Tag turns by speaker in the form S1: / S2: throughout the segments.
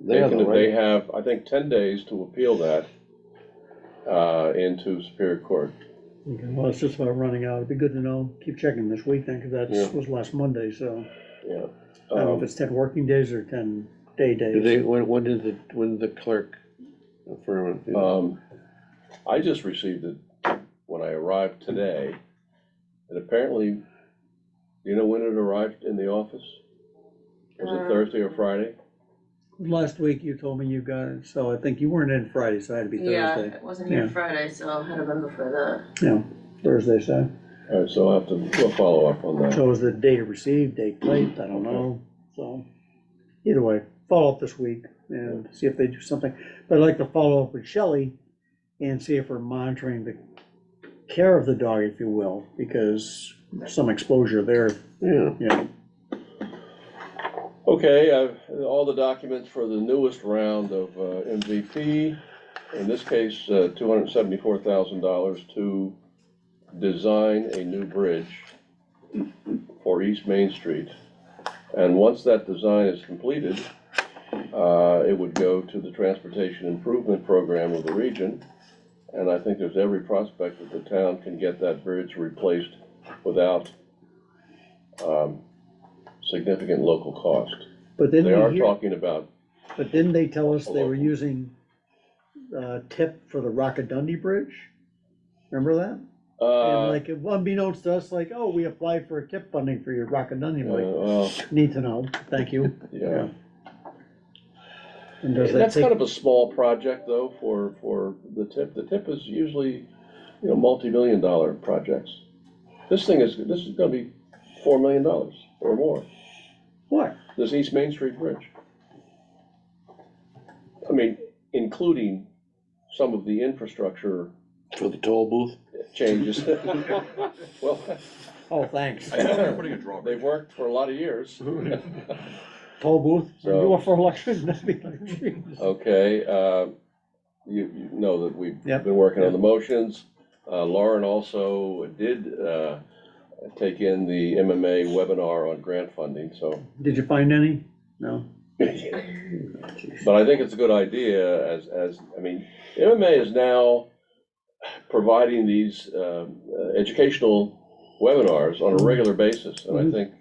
S1: They have the
S2: can- They
S1: right,
S2: have, I think, ten days to appeal that uh, into Superior Court.
S3: Okay, well, it's just about running out. It'd be good to know, keep checking this week then, because
S1: Yeah.
S3: that was last Monday, so.
S2: Yeah.
S3: I don't know if
S2: Um,
S3: it's ten working days or ten day
S1: did they,
S3: days.
S1: when, when did the, when did the clerk affirm it?
S2: um, I just received it when I arrived today, and apparently, do you know when it arrived in the office? Was it
S4: Um,
S2: Thursday or Friday?
S3: Last week you told me you got it, so I think you weren't in Friday, so it had to be
S4: Yeah,
S3: Thursday.
S4: it wasn't here
S3: Yeah.
S4: Friday, so it had to been before
S3: Yeah, Thursday, so.
S2: All right, so I'll have to, we'll follow up on that.
S3: So it was the day received, day late, I don't know, so. Either way, follow up this week and see if they do something. But I'd like to follow up with Shelley and see if we're monitoring the care of the dog, if you will, because some exposure there,
S1: Yeah,
S3: you know,
S2: Okay, I've, all the documents for the newest round of uh, MVP, in this case, uh, $274,000 to design a new bridge for East Main Street. And once that design is completed, uh, it would go to the Transportation Improvement Program of the region. And I think there's every prospect that the town can get that bridge replaced without um, significant local cost.
S3: but then
S2: They are
S3: we hear.
S2: talking about,
S3: But didn't they tell us they were
S2: Local.
S3: using, uh, tip for the Rockadundy Bridge? Remember that? And
S2: uh,
S3: like, unbeknownst to us, like, oh, we applied for tip funding for your Rockadundy, like,
S2: uh,
S3: need to know, thank you.
S2: yeah.
S3: And does that
S2: That's kind
S3: take,
S2: of a small project though for, for the tip. The tip is usually, you know, multi-million dollar projects. This thing is, this is gonna be four million dollars or more,
S3: what?
S2: this East Main Street Bridge. I mean, including some of the infrastructure
S1: for the toll booth?
S2: changes. Well,
S3: Oh, thanks.
S5: I thought they were putting a drawbridge.
S2: they've worked for a lot of years.
S3: Toll booth,
S2: So- Oh.
S3: you up for election? That'd be like, jeez.
S2: Okay, uh, you, you know that we've
S3: Yep.
S2: been working on the motions. Uh, Lauren also did uh, take in the MMA webinar on grant funding, so.
S3: Did you find any? No?
S2: But I think it's a good idea as, as, I mean, MMA is now providing these um, uh, educational webinars on a regular basis. And I
S3: Mhm.
S2: think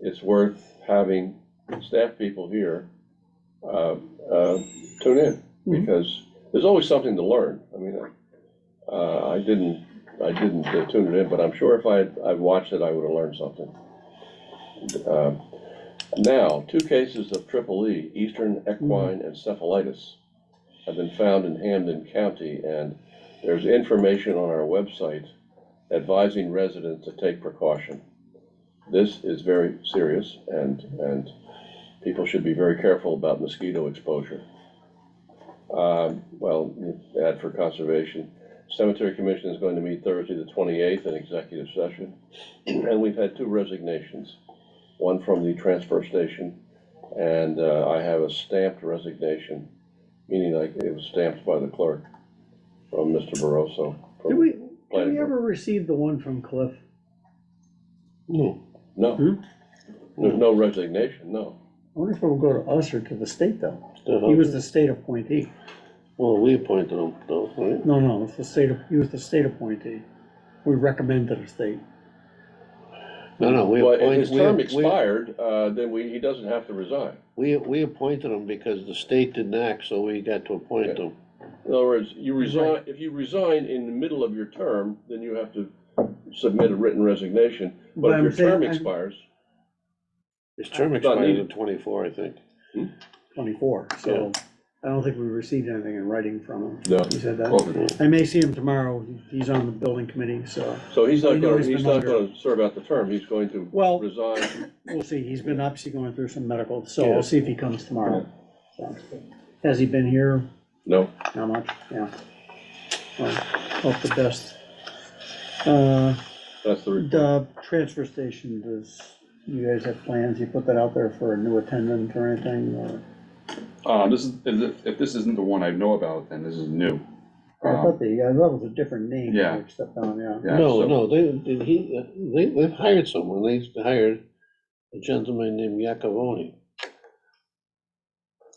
S2: it's worth having staff people here uh, uh, tune in
S3: Mhm.
S2: because there's always something to learn. I mean, uh, I didn't, I didn't uh, tune it in, but I'm sure if I, had- I'd watched it, I would have learned something. Um, Now, two cases of triple E, Eastern equine encephalitis, have been found in Hamden County, and there's information on our website advising residents to take precaution. This is very serious, and, and people should be very careful about mosquito exposure. Um, Well, you add for conservation, Cemetery Commission is going to meet Thursday, the twenty-eighth, in executive session. And we've had two resignations, one from the transfer station, and uh, I have a stamped resignation, meaning like it was stamped by the clerk from Mr. Barroso. from-
S3: Did we, did
S2: planning
S3: we
S2: board.
S3: ever receive the one from Cliff?
S1: No,
S2: No.
S3: Hmm?
S2: There's no resignation, no.
S3: I wonder if it'll go to us or to the state though. He
S1: uh-huh.
S3: was the state appointee.
S1: well, we appointed them though, right?
S3: No, no, it's the state, he was the state appointee. We recommend to the state.
S1: No, no, we
S2: But if
S1: appointed.
S2: his
S1: we-
S2: term
S1: we-
S2: expired, uh, then we, he doesn't have to resign.
S1: We, we appointed them because the state didn't act, so we got to appoint them.
S2: In other words, you resign, if you resign in the middle of your term, then you have to submit a written resignation.
S3: But
S2: But if
S3: I'm
S2: your term
S3: saying- I'm-
S2: expires,
S1: His term
S2: But I
S1: expired in
S2: needed-
S1: twenty-four, I think.
S3: twenty-four, so I don't think we received anything in writing from him.
S2: No.
S3: He said that.
S5: Well,
S3: I may see him tomorrow, he's on the building committee, so
S2: so he's
S3: I
S2: not
S3: know
S2: gonna,
S3: he's
S2: he's
S3: been
S2: not
S3: longer.
S2: gonna serve out the term, he's going to
S3: Well-
S2: resign.
S3: we'll see, he's been obviously going through some medical, so
S2: Yeah.
S3: we'll see if he comes tomorrow. So, Has he been here,
S2: No,
S3: how much, yeah. Well, Hope the best. Uh,
S2: that's the report.
S3: the transfer station, does, you guys have plans, you put that out there for a new attendant or anything, or?
S5: Uh, this is, if, if this isn't the one I know about, then this is new.
S3: I
S5: Um,
S3: thought they, I thought it was a different name. they
S5: Yeah.
S3: Stepped on, yeah.
S5: yeah,
S1: No,
S5: so-
S1: no, they, they- he, they, they've hired someone, they hired a gentleman named Yakavoni.